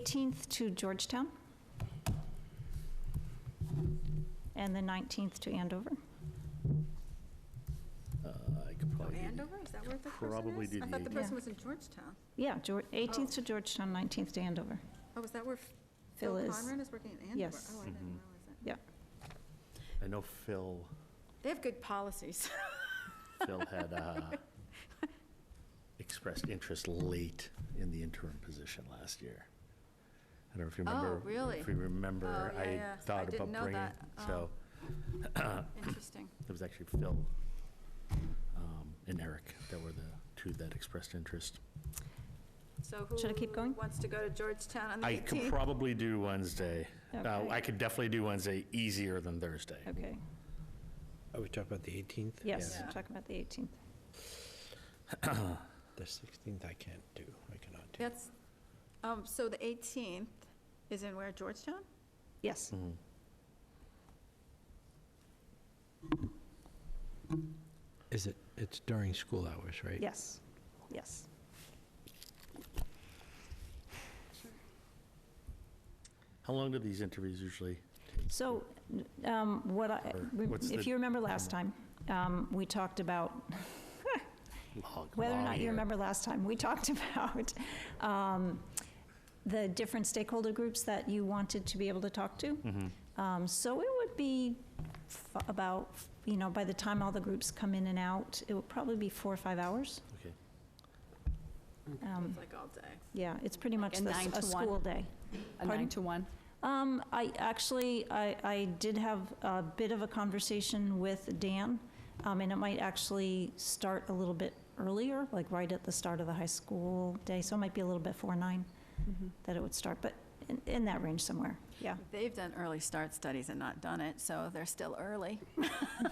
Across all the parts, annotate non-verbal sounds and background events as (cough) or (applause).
18th to Georgetown, and the 19th to Andover. Uh, I could probably, do- Andover, is that where the person Probably is? do I the thought the 18th. person Yeah. was in Georgetown. Yeah, Geor- 18th to Georgetown, 19th to Andover. Oh, is that where Phil Phil is. Conran is working in Andover? Yes. Oh, I didn't Mhm. realize that. I know Phil, They have good policies. (laughs) Phil had uh, expressed interest late in the interim position last year. I don't know if you Oh, remember. really? If you remember, Oh, yeah, I yeah. I thought didn't about know bringing, that. Oh. so Interesting. it was actually Phil um, and Eric that were the two that expressed interest. So Should I keep going? who wants to go to Georgetown on the I could 18th? probably do Wednesday. Uh, Okay. I could definitely do Wednesday easier than Thursday. Okay, Are we talking about the 18th? yes, Yeah. talking about the 18th. The 16th I can't do, I cannot do. That's, um, so the 18th is in where, Georgetown? Yes, Mhm. Is it, it's during school hours, right? yes, yes. How long do these interviews usually? So um, what I, Or we- what's if the- you remember last time, um, we talked about Long- whether or not long you year. remember last time, we (laughs) talked about um, the different stakeholder groups that you wanted to be able to talk to. Mm-hmm. Um, So it would be f- about, you know, by the time all the groups come in and out, it would probably be four or five hours. Okay. Um, It's like all day. Yeah, it's pretty Like much a the s- nine a to one? school day. A Pardon? nine to one? Um, I, actually, I, I did have a bit of a conversation with Dan, um, and it might actually start a little bit earlier, like right at the start of the high school day, so it might be a little bit four, nine Mm-hmm. that it would start, but in, in that range somewhere, yeah. They've done early start studies and not done it, so they're still early. (laughs)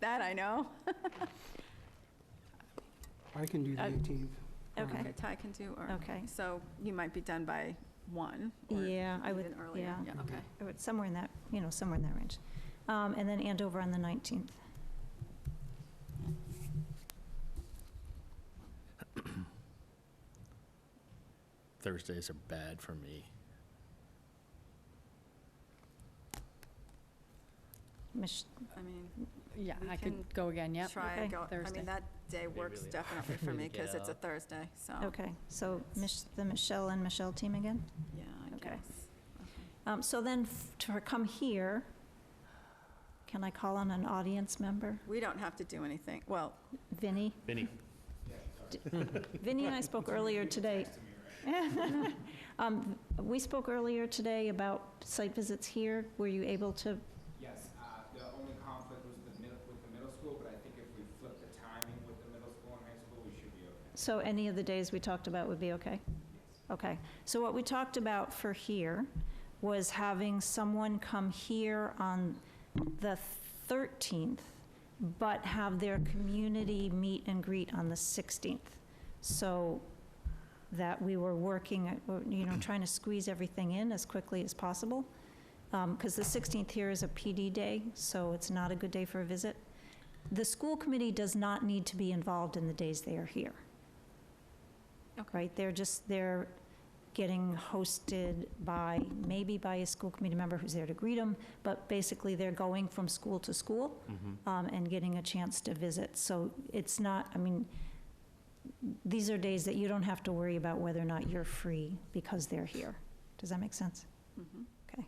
That I know. I can do the Uh, 18th. Okay, Ty can do, or, okay. so you might be done by 1 or Yeah, I would, even earlier. yeah, Yeah, okay. I would- somewhere in that, you know, somewhere in that range. Um, and then Andover on the 19th. Thursdays are bad for me. Mich- I mean, Yeah, We I can could go again, yep. try and go, I Thursday. mean, that day Maybe works really definitely for hard me to get because it's a out. Thursday, so, Okay, so Mich- the Michelle and Michelle team again? yeah, I Okay. guess. Um, So then, f- to come here, can I call on an audience member? We don't have to do anything, well, Vinny? Vinny. Vinny and I spoke earlier today. (laughs) Um, We spoke earlier today about site visits here. Were you able to, Yes, uh, the only conflict was the middle, with the middle school, but I think if we flip the timing with the middle school and high school, we should be okay. so any of the days we talked about would be okay? Okay. So what we talked about for here was having someone come here on the 13th, but have their community meet and greet on the 16th. So that we were working, at- or, you know, trying to squeeze everything in as quickly as possible. Because the 16th here is a PD day, so it's not a good day for a visit. The school committee does not need to be involved in the days they are here. Right, they're just, they're getting hosted by, maybe by a school committee member who's there to greet them, but basically they're going from school to school Mm-hmm. um, and getting a chance to visit. So it's not, I mean, these are days that you don't have to worry about whether or not you're free because they're here. Does that make sense? Mhm. Okay.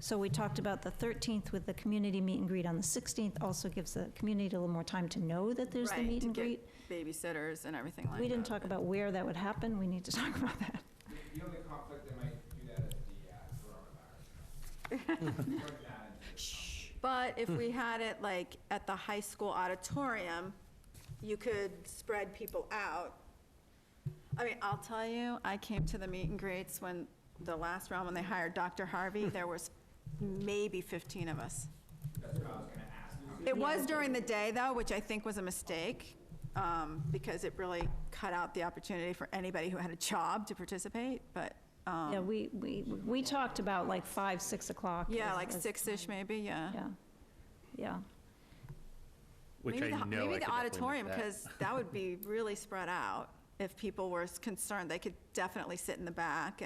So we talked about the 13th with the community meet and greet on the 16th, also gives the community a little more time to know that there's the Right, meet to and get greet. Babysitters and everything like that. We didn't talk about where that would happen, we need to (laughs) talk about that. The, the only conflict that might do that is the, uh, coronavirus. Bring that into the But if we had it like at the high school auditorium, you could spread people out. I mean, I'll tell you, I came to the meet and greets when, the last round, when they hired Dr. Harvey, there was maybe 15 of us. It was during the day, though, which I think was a mistake, um, because it really cut out the opportunity for anybody who had a job to participate, but, um, Yeah, we, we, we talked about like 5, 6 o'clock. yeah, as- like as- six-ish maybe, yeah. Yeah, yeah. Which Maybe I know I could the- Maybe the definitely make auditorium, that. because that would be really spread out if people were concerned. They could definitely sit in the back